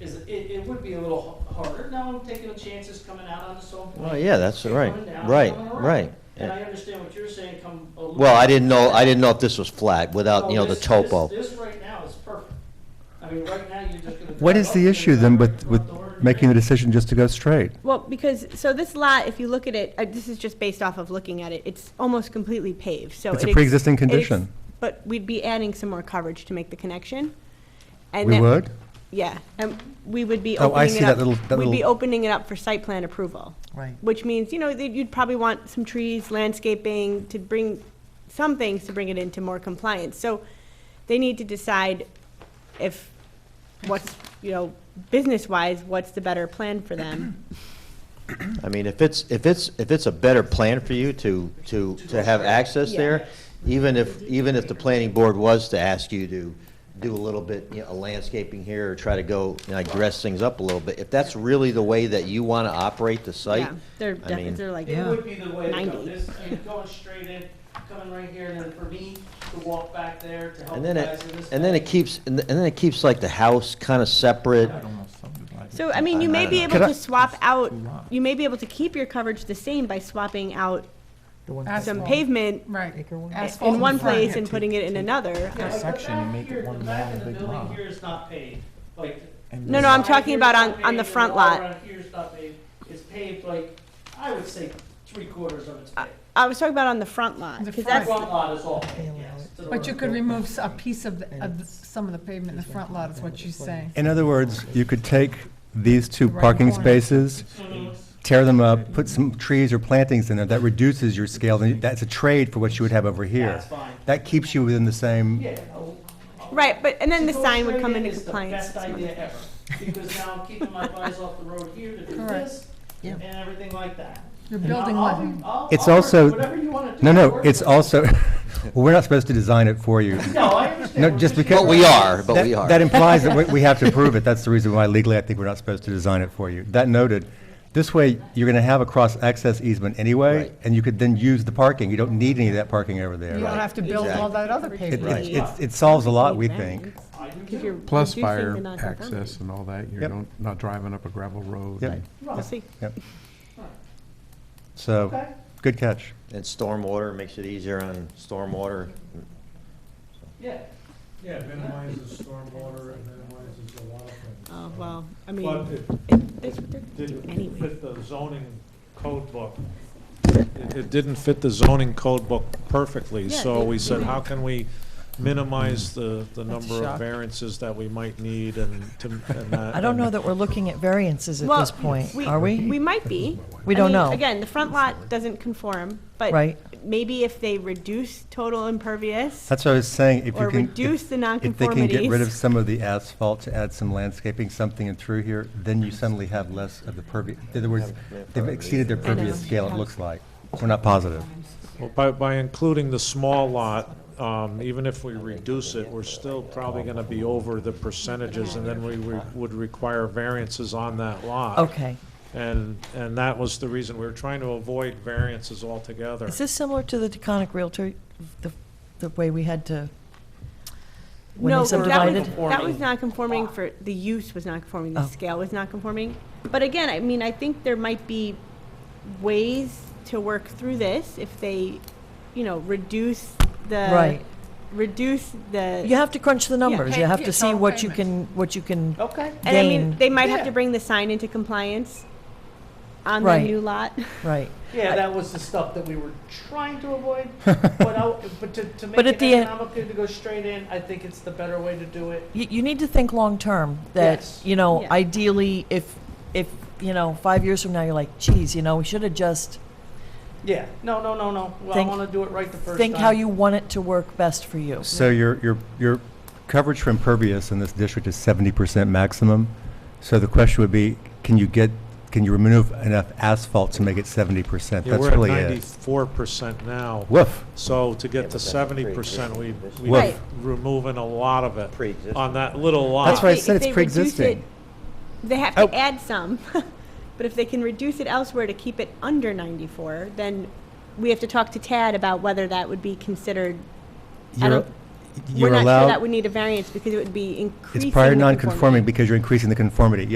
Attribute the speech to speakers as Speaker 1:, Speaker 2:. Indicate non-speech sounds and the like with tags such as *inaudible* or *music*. Speaker 1: it, it would be a little h- harder. Now I'm taking chances coming out on the own.
Speaker 2: Well, Oh, yeah, that's
Speaker 1: Coming
Speaker 2: right,
Speaker 1: down,
Speaker 2: right,
Speaker 1: coming around.
Speaker 2: right.
Speaker 1: And I understand what you're saying, come a little.
Speaker 2: Well, I didn't know, I didn't know if this was flat without, you know, the
Speaker 1: So this-
Speaker 2: topo.
Speaker 1: This, this right now is perfect. I mean, right now, you're just gonna.
Speaker 3: What
Speaker 1: drive
Speaker 3: is
Speaker 1: up,
Speaker 3: the
Speaker 1: you're
Speaker 3: issue
Speaker 1: gonna
Speaker 3: then
Speaker 1: drive
Speaker 3: with,
Speaker 1: right
Speaker 3: with
Speaker 1: out door and
Speaker 3: making the
Speaker 1: you're in.
Speaker 3: decision just to go straight?
Speaker 4: Well, because, so this lot, if you look at it, uh, this is just based off of looking at it, it's almost completely paved, so.
Speaker 3: It's
Speaker 4: it
Speaker 3: a
Speaker 4: ex-
Speaker 3: pre-existing
Speaker 4: it ex-
Speaker 3: condition.
Speaker 4: But we'd be adding some more coverage to make the connection. and
Speaker 3: We
Speaker 4: that-
Speaker 3: would?
Speaker 4: Yeah, and we would be
Speaker 3: Oh, I
Speaker 4: opening it up.
Speaker 3: see that little- that
Speaker 4: We'd be
Speaker 3: little-
Speaker 4: opening it up for site plan approval.
Speaker 5: Right.
Speaker 4: Which means, you know, that you'd probably want some trees, landscaping, to bring, some things to bring it into more compliance. So they need to decide if, what's, you know, business-wise, what's the better plan for them.
Speaker 2: I mean, if it's, if it's, if it's a better plan for you to, to, to have access
Speaker 4: Yeah.
Speaker 2: there, even if, even if the planning board was to ask you to do a little bit, you know, a landscaping here, or try to go, you know, dress things up a little bit, if that's really the way that you want to operate the site,
Speaker 4: Yeah, They're,
Speaker 2: I mean-
Speaker 4: def- they're like,
Speaker 1: It would be the way to go.
Speaker 4: 90.
Speaker 1: This, I mean, going straight in, coming right here, and then for me to walk back there to help
Speaker 2: and
Speaker 1: you
Speaker 2: then
Speaker 1: guys
Speaker 2: it,
Speaker 1: in this.
Speaker 2: and then it keeps, and th- and then it keeps like the house kind of separate.
Speaker 4: So, I mean, you may be able
Speaker 3: Could I-
Speaker 4: to swap out, you may be able to keep your coverage the same by swapping out some
Speaker 5: Asphalt.
Speaker 4: pavement
Speaker 6: Right. Asphalt
Speaker 4: in one
Speaker 6: front.
Speaker 4: place and putting it in another.
Speaker 1: Yeah, like the
Speaker 5: section and
Speaker 1: back
Speaker 5: make it
Speaker 1: here,
Speaker 5: one
Speaker 1: the back
Speaker 5: long
Speaker 1: of the
Speaker 5: big
Speaker 1: building
Speaker 5: lot.
Speaker 1: Here is not paved, like.
Speaker 4: No, no, I'm
Speaker 1: side
Speaker 4: talking
Speaker 1: here's
Speaker 4: about
Speaker 1: not
Speaker 4: on- on the
Speaker 1: paved,
Speaker 4: front
Speaker 1: and all
Speaker 4: lot.
Speaker 1: around Here's not paved, it's paved like, I would say three quarters of it's paved.
Speaker 4: I was talking about on the front lot,
Speaker 6: The
Speaker 4: 'cause
Speaker 1: The
Speaker 4: that's,
Speaker 1: front lot is all paved, yes. to the
Speaker 6: But you
Speaker 1: road.
Speaker 6: could remove s- a piece of, the- of the- some of the pavement in the front lot, is what you're saying.
Speaker 3: In other words, you could take these two
Speaker 6: Right
Speaker 3: parking
Speaker 6: corner.
Speaker 3: spaces,
Speaker 1: Mhm.
Speaker 3: tear them up, put some trees or plantings in there, that reduces your scale, and that's a trade for what you would have over here.
Speaker 1: That's fine.
Speaker 3: That keeps you within the same,
Speaker 1: Yeah. I'll- I'll-
Speaker 4: right, but, and then the
Speaker 1: To go
Speaker 4: sign would
Speaker 1: straight
Speaker 4: come
Speaker 1: in
Speaker 4: into
Speaker 1: is the
Speaker 4: compliance.
Speaker 1: Best idea ever, because now I'm keeping my eyes off the road here to do
Speaker 6: Correct.
Speaker 1: this
Speaker 5: Yeah.
Speaker 1: and everything like that.
Speaker 6: You're
Speaker 1: And I'll-
Speaker 6: building
Speaker 1: I'll be-
Speaker 6: one.
Speaker 1: I'll-
Speaker 3: It's
Speaker 1: I'll work-
Speaker 3: also-
Speaker 1: Whatever you want to do.
Speaker 3: no,
Speaker 1: I'll
Speaker 3: no,
Speaker 1: work
Speaker 3: it's
Speaker 1: with it.
Speaker 3: also, *laughs* well, we're not supposed to design it for you.
Speaker 1: No, I understand.
Speaker 3: No,
Speaker 1: We're
Speaker 3: just because-
Speaker 2: But we are, but
Speaker 3: That-
Speaker 2: we are.
Speaker 3: That implies that we- we have to approve
Speaker 2: *laughs*
Speaker 3: it. That's the reason why legally I think we're not supposed to design it for you. That noted, this way, you're going to have a cross-access easement anyway,
Speaker 2: Right.
Speaker 3: and you could then use the parking. You don't need any of that parking over
Speaker 6: You
Speaker 3: there.
Speaker 6: don't have to build all
Speaker 2: Exactly.
Speaker 6: that other
Speaker 3: It-
Speaker 6: pavement.
Speaker 2: Right.
Speaker 3: It it's- it solves a lot, we think.
Speaker 1: I do
Speaker 4: If you're
Speaker 1: too.
Speaker 7: Plus
Speaker 4: reducing the
Speaker 7: fire
Speaker 4: non-conformity.
Speaker 7: access and all that,
Speaker 3: Yep.
Speaker 7: you're don't- not driving up a gravel road.
Speaker 3: Yep.
Speaker 7: and-
Speaker 4: We'll
Speaker 1: Right,
Speaker 4: see.
Speaker 3: Yep.
Speaker 1: right.
Speaker 3: So,
Speaker 1: Okay.
Speaker 3: good catch.
Speaker 2: And stormwater makes it easier on stormwater.
Speaker 1: Yeah,
Speaker 8: Yeah, it minimizes stormwater, it minimizes a lot of things.
Speaker 4: Oh, well, I
Speaker 8: But
Speaker 4: mean,
Speaker 8: it
Speaker 4: that's what they're
Speaker 8: didn't
Speaker 4: anyway.
Speaker 8: fit the zoning code book. It it didn't fit the zoning code book perfectly,
Speaker 4: Yeah,
Speaker 8: so
Speaker 4: it-
Speaker 8: we said,
Speaker 4: yeah.
Speaker 8: how can we minimize the, the
Speaker 5: That's
Speaker 8: number of
Speaker 5: shocking.
Speaker 8: variances that we might need and to, and that.
Speaker 5: *laughs* I don't know
Speaker 8: and-
Speaker 5: that we're looking at variances at this point, are
Speaker 4: We
Speaker 5: we?
Speaker 4: might be.
Speaker 5: We
Speaker 4: I
Speaker 5: don't
Speaker 4: mean,
Speaker 5: know.
Speaker 4: Again, the front lot doesn't conform, but
Speaker 5: Right.
Speaker 4: maybe if they reduce total impervious
Speaker 3: That's what I was saying, if you
Speaker 4: or
Speaker 3: can.
Speaker 4: reduce the
Speaker 3: If they can get rid of
Speaker 4: nonconformities.
Speaker 3: some of the asphalt to add some landscaping, something in through here, then you suddenly have less of the pervious. In other words, they've exceeded their pervious scale, it looks like. We're not positive.
Speaker 8: Well, By, by including the small lot, um, even if we reduce it, we're still probably gonna be over the percentages, and then we re- would require variances on that lot.
Speaker 5: Okay.
Speaker 8: And, and that was the reason, we were trying to avoid variances altogether.
Speaker 5: Is this similar to the Taconic Realtor, the, the way we had to, when
Speaker 4: No,
Speaker 5: they
Speaker 4: but that was,
Speaker 5: subdivided?
Speaker 4: that was not conforming for, the use was not conforming, the
Speaker 5: Oh.
Speaker 4: scale was not conforming. But again, I mean, I think there might be ways to work through this if they, you know, reduce the.
Speaker 5: Right.
Speaker 4: Reduce the.
Speaker 5: You have to crunch the numbers. You
Speaker 6: Pay-
Speaker 5: have
Speaker 6: yeah,
Speaker 5: to see
Speaker 6: total
Speaker 5: what you can,
Speaker 6: payment.
Speaker 5: what you can,
Speaker 1: Okay.
Speaker 4: And I mean,
Speaker 5: gain.
Speaker 4: they might have
Speaker 6: Yeah.
Speaker 4: to bring the sign into compliance on the
Speaker 5: Right.
Speaker 4: new lot. *laughs*
Speaker 5: right.
Speaker 1: Yeah, that was the stuff that we were trying to
Speaker 5: *laughs*
Speaker 1: avoid, but I, but to, to make
Speaker 5: But at
Speaker 1: it
Speaker 5: the end-
Speaker 1: economical to go straight in, I think it's the better way to do it.
Speaker 5: You, you need to think long-term, that,
Speaker 1: Yes.
Speaker 5: you know,
Speaker 4: Yeah.
Speaker 5: ideally, if, if, you know, five years from now, you're like, geez, you know, we should have just,
Speaker 1: Yeah, no, no, no, no, well, I
Speaker 5: Think-
Speaker 1: wanna do it right the first time.
Speaker 5: think how you want it to work best for you.
Speaker 3: So your, your, your coverage for impervious in this district is seventy percent maximum. So the question would be, can you get, can you remove enough asphalt to make it seventy percent?
Speaker 8: Yeah,
Speaker 3: That's
Speaker 8: we're at
Speaker 3: really it.
Speaker 8: ninety-four percent now,
Speaker 3: Woof.
Speaker 8: so to get to
Speaker 2: that's
Speaker 8: seventy percent, we, we
Speaker 4: Right.
Speaker 8: removing a lot of it
Speaker 2: Pre-existing.
Speaker 8: on that little lot.
Speaker 3: That's
Speaker 4: If
Speaker 3: why I
Speaker 4: they-
Speaker 3: said
Speaker 4: if
Speaker 3: it's
Speaker 4: they reduce it-
Speaker 3: pre-existing.
Speaker 4: They have
Speaker 3: Oh.
Speaker 4: to add some, *laughs* but if they can reduce it elsewhere to keep it under ninety-four, then we have to talk to Tad about whether that would be considered. I
Speaker 3: You're,
Speaker 4: don't-
Speaker 3: you're
Speaker 4: We're not sure that
Speaker 3: allowed,
Speaker 4: would need a variance because it would be increasing.
Speaker 3: it's prior
Speaker 4: the
Speaker 3: non-conforming
Speaker 4: conformity.
Speaker 3: because you're increasing the conformity.